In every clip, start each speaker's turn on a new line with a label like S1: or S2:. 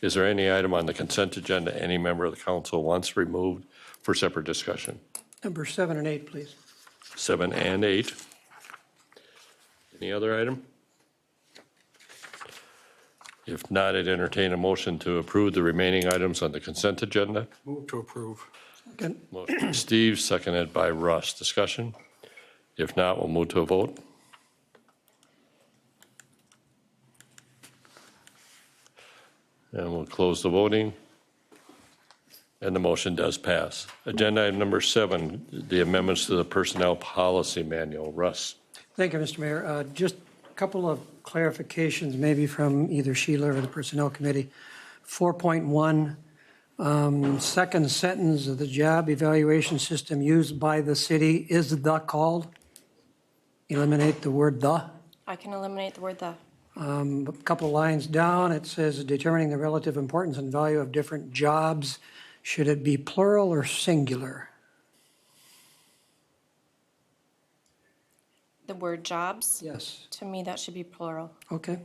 S1: Is there any item on the consent agenda any member of the council wants removed for separate discussion?
S2: Number seven and eight, please.
S1: Seven and eight. Any other item? If not, I'd entertain a motion to approve the remaining items on the consent agenda.
S3: Move to approve.
S2: Second.
S1: Motion by Steve, seconded by Russ. Discussion? If not, we'll move to a vote. And we'll close the voting. And the motion does pass. Agenda item number seven, the amendments to the Personnel Policy Manual. Russ?
S2: Thank you, Mr. Mayor. Uh, Just a couple of clarifications, maybe from either Sheila or the Personnel Committee. 4.1, um, second sentence of the job evaluation system used by the city is the called. Eliminate the word the. Um,
S4: I can eliminate the word the.
S2: A couple lines down, it says determining the relative importance and value of different jobs. Should it be plural or singular?
S4: The word jobs.
S2: Yes.
S4: To me, that should be plural.
S2: Okay.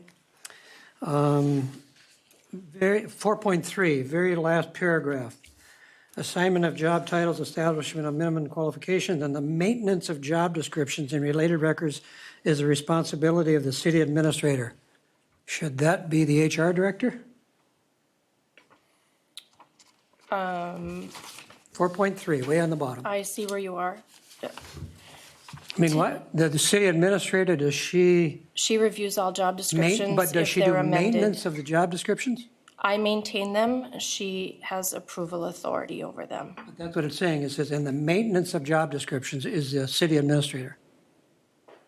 S2: Um, Very, 4.3, very last paragraph. Assignment of job titles, establishment of minimum qualifications, and the maintenance of job descriptions and related records is the responsibility of the city administrator. Should that be the HR director?
S4: Um.
S2: 4.3, way on the bottom.
S4: I see where you are.
S2: I mean, what, the, the city administrator, does she,
S4: She reviews all job
S2: main-
S4: descriptions
S2: but does
S4: if
S2: she
S4: they're
S2: do
S4: amended.
S2: maintenance of the job descriptions?
S4: I maintain them. She has approval authority over them.
S2: That's what it's saying, it says, and the maintenance of job descriptions is the city administrator.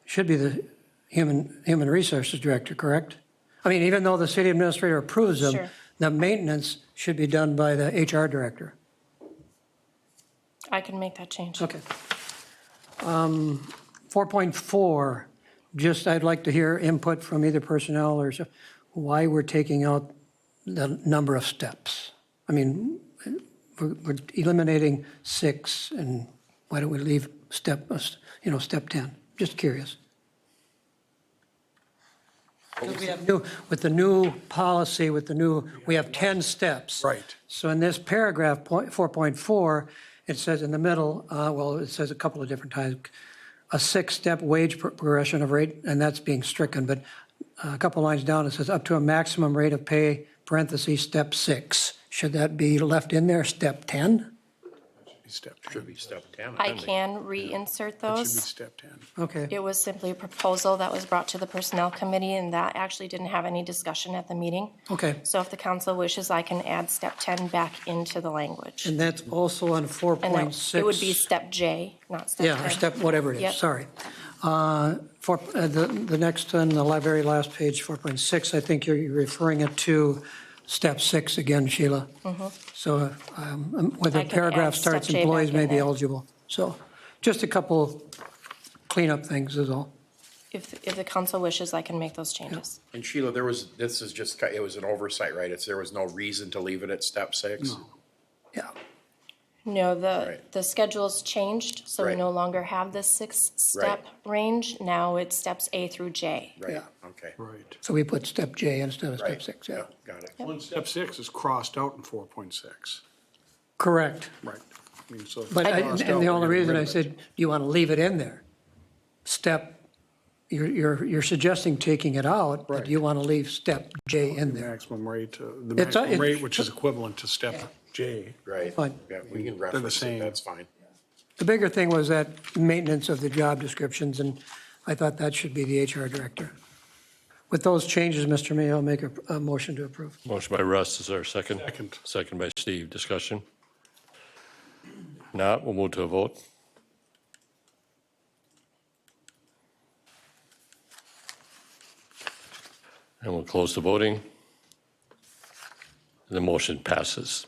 S2: Should be the human, human resources director, correct? I mean, even though the city administrator approves them,
S4: Sure.
S2: the maintenance should be done by the HR director.
S4: I can make that change.
S2: Okay. Um, 4.4, just, I'd like to hear input from either personnel or so- why we're taking out the number of steps. I mean, we're we're eliminating six, and why don't we leave step, uh, you know, step 10? Just curious. We have new- With the new policy, with the new, we have 10 steps.
S3: Right.
S2: So in this paragraph, point- 4.4, it says in the middle, uh, well, it says a couple of different times, a six-step wage pro- progression of rate, and that's being stricken, but uh, a couple lines down, it says up to a maximum rate of pay, parentheses, step six. Should that be left in there, step 10?
S3: Step 10. Should be step 10.
S4: I can reinsert
S3: Should be
S4: those.
S3: step 10.
S2: Okay,
S4: It was simply a proposal that was brought to the Personnel Committee, and that actually didn't have any discussion at the meeting.
S2: okay.
S4: So if the council wishes, I can add step 10 back into the language.
S2: And that's also on
S4: And that-
S2: 4.6.
S4: it would be step J, not step 10.
S2: Yeah, or step, whatever it
S4: Yep.
S2: is, sorry. Uh, For, uh, the, the next one, the la- very last page, 4.6, I think you're referring it to step six again, Sheila. So um, um, whether
S4: Mm-hmm. I can
S2: paragraph
S4: add step
S2: starts,
S4: J back
S2: employees may
S4: in
S2: be
S4: there.
S2: eligible. So just a couple cleanup things is all.
S4: If, if the council wishes, I can make those changes.
S5: And Sheila, there was, this is just, ki- it was an oversight, right? It's, there was no reason to leave it at step six?
S2: Yeah,
S4: No, the,
S5: Right.
S4: the schedule's changed, so we
S5: Right.
S4: no longer have the six-step range. Now it's steps A through J.
S5: Right,
S2: Yeah.
S5: okay.
S3: Right.
S2: so we put step J instead of step
S5: Right.
S2: six, yeah.
S5: Yep, Got it.
S3: Well, and step six is crossed out in 4.6.
S2: Correct.
S3: Right. I mean, so. if it's
S2: But, I-
S3: crossed out,
S2: and the
S3: we're
S2: only
S3: getting
S2: reason
S3: rid
S2: I
S3: of it.
S2: said, you want to leave it in there? Step, you're, you're, you're suggesting taking it out, but
S3: Right.
S2: you want to leave step J in there.
S3: Maximum rate, uh, the
S2: It's a-
S3: maximum
S2: it-
S3: rate, which is equivalent to step J.
S5: Right.
S2: Fine.
S5: Yeah, we can reference
S3: same.
S5: it, that's fine.
S2: The bigger thing was that maintenance of the job descriptions, and I thought that should be the HR director. With those changes, Mr. Mayor, I'll make a, a motion to approve.
S1: Motion by Russ, is there a second?
S3: Second.
S1: Second by Steve, discussion? Not, we'll move to a vote. And we'll close the voting. The motion passes.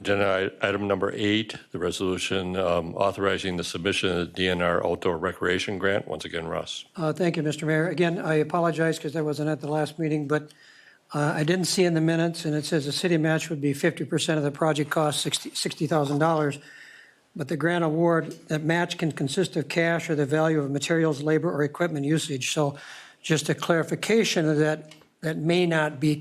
S1: Agenda i- item number eight, the resolution um, authorizing the submission of the DNR Outdoor Recreation Grant. Once again, Russ.
S2: Uh, Thank you, Mr. Mayor. Again, I apologize because I wasn't at the last meeting, but uh, I didn't see in the minutes, and it says the city match would be 50% of the project cost, $60 $60,000. But the grant award, that match can consist of cash or the value of materials, labor, or equipment usage. So just a clarification of that, that may not be